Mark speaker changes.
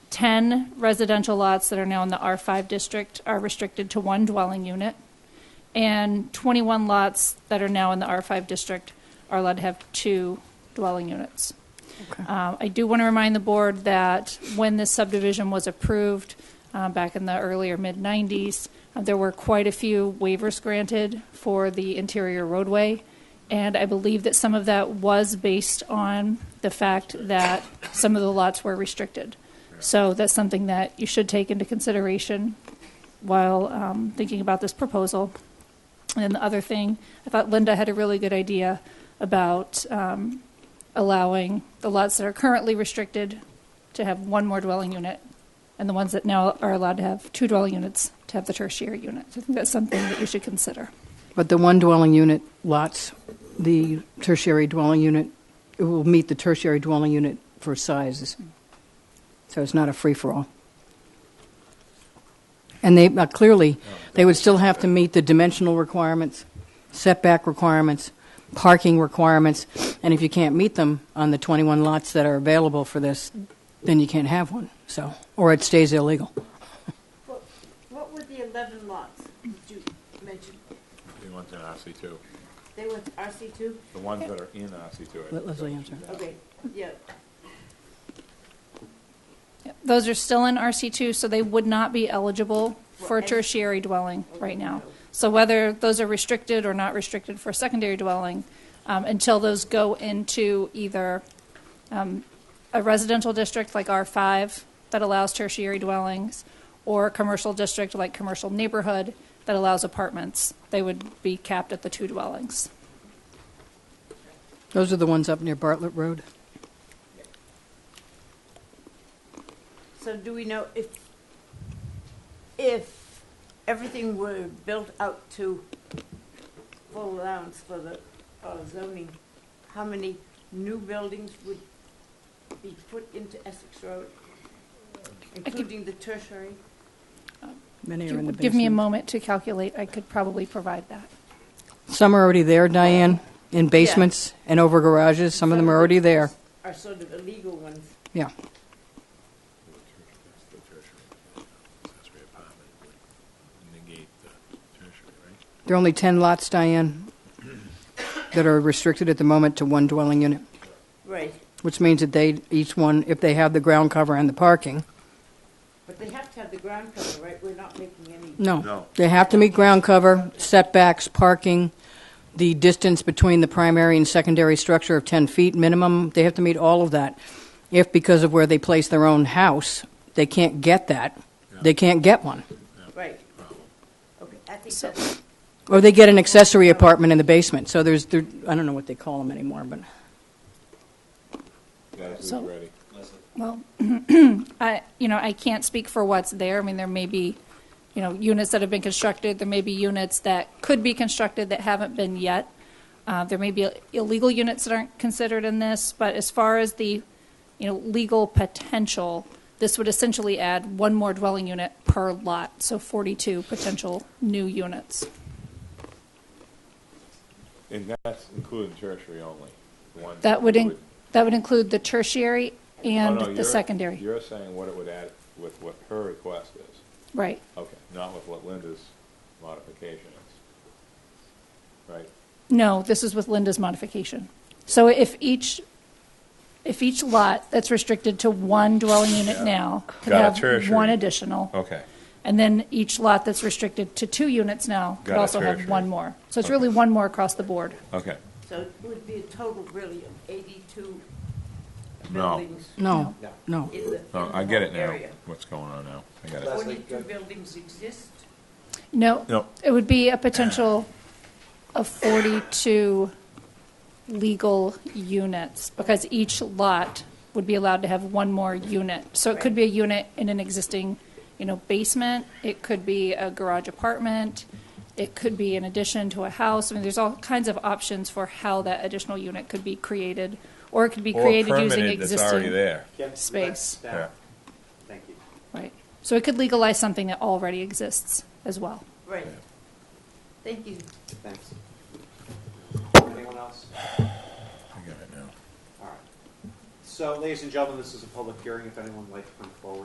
Speaker 1: 10 residential lots that are now in the R5 district are restricted to one dwelling unit, and 21 lots that are now in the R5 district are allowed to have two dwelling units. Uh, I do want to remind the board that when this subdivision was approved uh, back in the earlier mid-'90s, there were quite a few waivers granted for the interior roadway, and I believe that some of that was based on the fact that some of the lots were restricted. So that's something that you should take into consideration while um, thinking about this proposal. And then the other thing, I thought Linda had a really good idea about um, allowing the lots that are currently restricted to have one more dwelling unit, and the ones that now are allowed to have two dwelling units to have the tertiary unit. I think that's something that you should consider.
Speaker 2: But the one dwelling unit lots, the tertiary dwelling unit, it will meet the tertiary dwelling unit for sizes. So it's not a free-for-all. And they, uh, clearly, they would still have to meet the dimensional requirements, setback requirements, parking requirements, and if you can't meet them on the 21 lots that are available for this, then you can't have one, so, or it stays illegal.
Speaker 3: What what were the 11 lots that you mentioned?
Speaker 4: The ones in RC2,
Speaker 3: They were RC2?
Speaker 4: the ones that are in RC2.
Speaker 2: Let Leslie answer.
Speaker 3: Okay, yeah.
Speaker 1: Those are still in RC2, so they would not be eligible for a
Speaker 3: Right.
Speaker 1: tertiary dwelling right now.
Speaker 3: Okay.
Speaker 1: So whether those are restricted or not restricted for secondary dwelling, um, until those go into either um, a residential district like R5 that allows tertiary dwellings, or a commercial district like commercial neighborhood that allows apartments, they would be capped at the two dwellings.
Speaker 2: Those are the ones up near Bartlett Road.
Speaker 3: So do we know if, if everything were built out to full allowance for the uh, zoning, how many new buildings would be put into Essex Road, including the tertiary?
Speaker 2: Many are in the
Speaker 1: Give me a
Speaker 2: basement.
Speaker 1: moment to calculate, I could probably provide that.
Speaker 2: Some are already there, Diane, in basements and over garages. Some of them are already there.
Speaker 3: Are sort of illegal ones.
Speaker 2: Yeah.
Speaker 4: Negate the tertiary, right?
Speaker 2: There are only 10 lots, Diane, that are restricted at the moment to one dwelling unit,
Speaker 3: Right.
Speaker 2: which means that they, each one, if they have the ground cover and the parking,
Speaker 3: But they have to have the ground cover, right? We're not making any.
Speaker 2: no.
Speaker 4: No.
Speaker 2: They have to meet ground cover, setbacks, parking, the distance between the primary and secondary structure of 10 feet minimum. They have to meet all of that. If because of where they place their own house, they can't get that, they can't get one.
Speaker 3: Right.
Speaker 4: Uh-huh.
Speaker 3: Okay, I think that's,
Speaker 2: Or they get an accessory apartment in the basement, so there's, there, I don't know what they call them anymore, but
Speaker 4: Leslie's
Speaker 1: So-
Speaker 4: ready.
Speaker 1: Well, I, you know, I can't speak for what's there. I mean, there may be, you know, units that have been constructed. There may be units that could be constructed that haven't been yet. Uh, there may be illegal units that aren't considered in this, but as far as the, you know, legal potential, this would essentially add one more dwelling unit per lot, so 42 potential new units.
Speaker 4: And that's including tertiary only. the ones
Speaker 1: That would, in-
Speaker 4: include-
Speaker 1: that would include the tertiary
Speaker 4: Oh,
Speaker 1: and
Speaker 4: no,
Speaker 1: the
Speaker 4: you're-
Speaker 1: secondary.
Speaker 4: You're saying what it would add with what her request is.
Speaker 1: Right.
Speaker 4: Okay, not with what Linda's modification is. Right?
Speaker 1: No, this is with Linda's modification. So if each, if each lot that's restricted to one dwelling unit now could
Speaker 4: Got a
Speaker 1: have
Speaker 4: tertiary. Oh.
Speaker 1: one additional,
Speaker 4: Okay.
Speaker 1: and then each lot that's restricted to two units now could
Speaker 4: Got a
Speaker 1: also have
Speaker 4: tertiary.
Speaker 1: one more. So it's really one more across the board.
Speaker 4: Okay.
Speaker 3: so it would be a total really of 82
Speaker 4: No.
Speaker 3: buildings.
Speaker 2: no, no.
Speaker 3: in the-
Speaker 4: No,
Speaker 3: in
Speaker 4: Oh, I
Speaker 3: the
Speaker 4: get it
Speaker 3: whole
Speaker 4: now,
Speaker 3: area.
Speaker 4: what's going on now. I got it.
Speaker 5: Leslie.
Speaker 3: 42 buildings exist.
Speaker 1: No,
Speaker 4: No.
Speaker 1: it would be a potential of 42 legal units, because each lot would be allowed to have one more unit. So it could be a unit in an existing, you know, basement, it could be a garage apartment, it could be an addition to a house. I mean, there's all kinds of options for how that additional unit could be created, or it could be
Speaker 4: Or
Speaker 1: created using
Speaker 4: permitted that's already
Speaker 1: existing.
Speaker 4: there.
Speaker 5: Kim,
Speaker 1: Space.
Speaker 5: back- back. Thank you.
Speaker 1: Right. So it could legalize something that already exists as well.
Speaker 3: Right. Thank you.
Speaker 5: Thanks. Anyone else?
Speaker 4: I got it now.
Speaker 5: All right. So, ladies and gentlemen, this is a public hearing. If anyone would like to come forward.